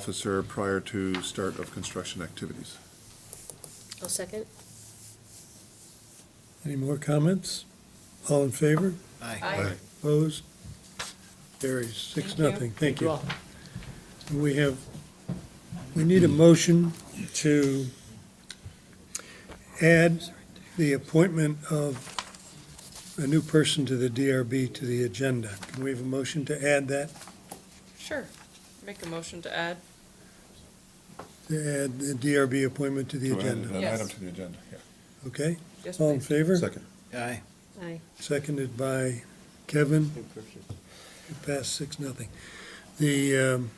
officer prior to start of construction activities. I'll second. Any more comments? All in favor? Aye. Opposed? Carries six, Thank you. nothing. Thank you. We have, we need a motion to add the appointment of a new person to the DRB to the agenda. Can we have a motion to add that, Sure. Make a motion to add. to add the DRB appointment to the To add agenda? An Yes. item to the agenda, yeah. Okay? Yes, All in please. favor? Second. Aye. Aye. Seconded by Kevin. It passed six, nothing. The, um,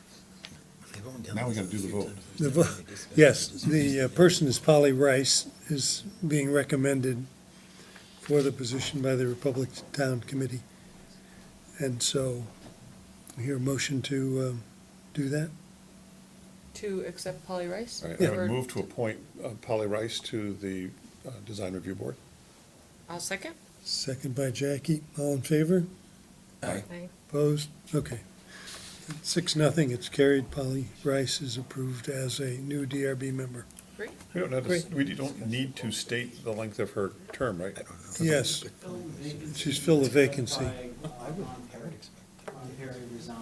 Now we gotta do the vote. The vo- Yes, the uh, person is Polly Rice, is being recommended for the position by the Republic Town Committee. And so, we hear a motion to um, do that? To accept Polly Rice? All right, I Or- would move to appoint uh, Polly Rice to the uh, Design Review Board. I'll second. Second by Jackie, all in favor? Aye. Opposed? Okay. Six, nothing, it's carried. Polly Rice is approved as a new DRB member. Great. We don't have, to s- Great. we don't need to state the length of her term, right? Yes, she's filled a vacancy. I would. Ron Perry, Ron Perry resigned.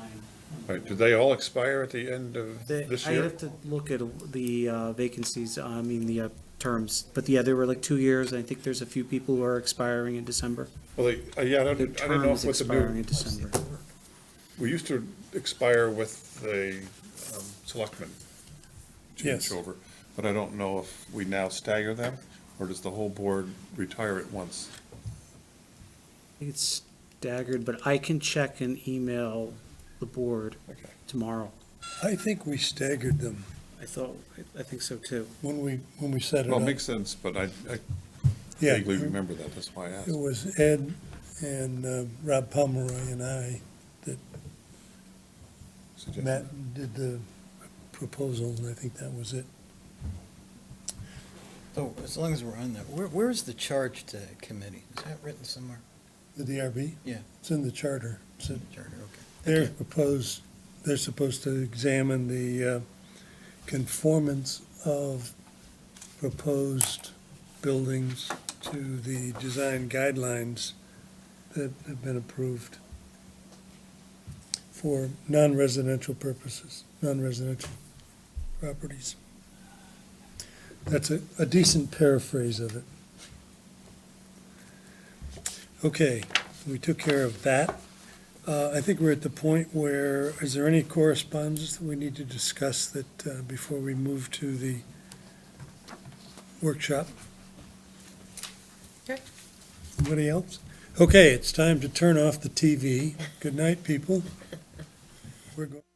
All right, do they all expire at the end of They- this I year? have to look at the uh, vacancies, I mean, the uh, terms, but yeah, there were like two years, and I think there's a few people who are expiring in December. Well, they- uh, yeah, I don't, Their I don't know terms what the new expiring in December. We used to expire with the um, selectmen Yes. changeover, but I don't know if we now stagger them, or does the whole board retire at once? I think It's staggered, but I can check and email the board Okay. tomorrow. I think we staggered them I thought, I- I think so too. when we, when we set it up. Well, it makes sense, but I I Yeah, vaguely we- remember that, that's why I asked. It was Ed and uh, Rob Pomeroy and I Suggested. met and did the proposal, and I think that was it. So as long as we're on that, where, where's the charge to committee? Is that written somewhere? The DRB? Yeah. It's in the charter. It's Charter, in- okay. They're proposed, they're supposed to examine the uh, conformance of proposed buildings to the design guidelines that have been approved for non-residential purposes, non-residential properties. That's a a decent paraphrase of it. Okay, we took care of that. Uh, I think we're at the point where, is there any correspondence that we need to discuss that, uh, before we move to the workshop? Okay. Anybody else? Okay, it's time to turn off the TV. Good night, people. We're going.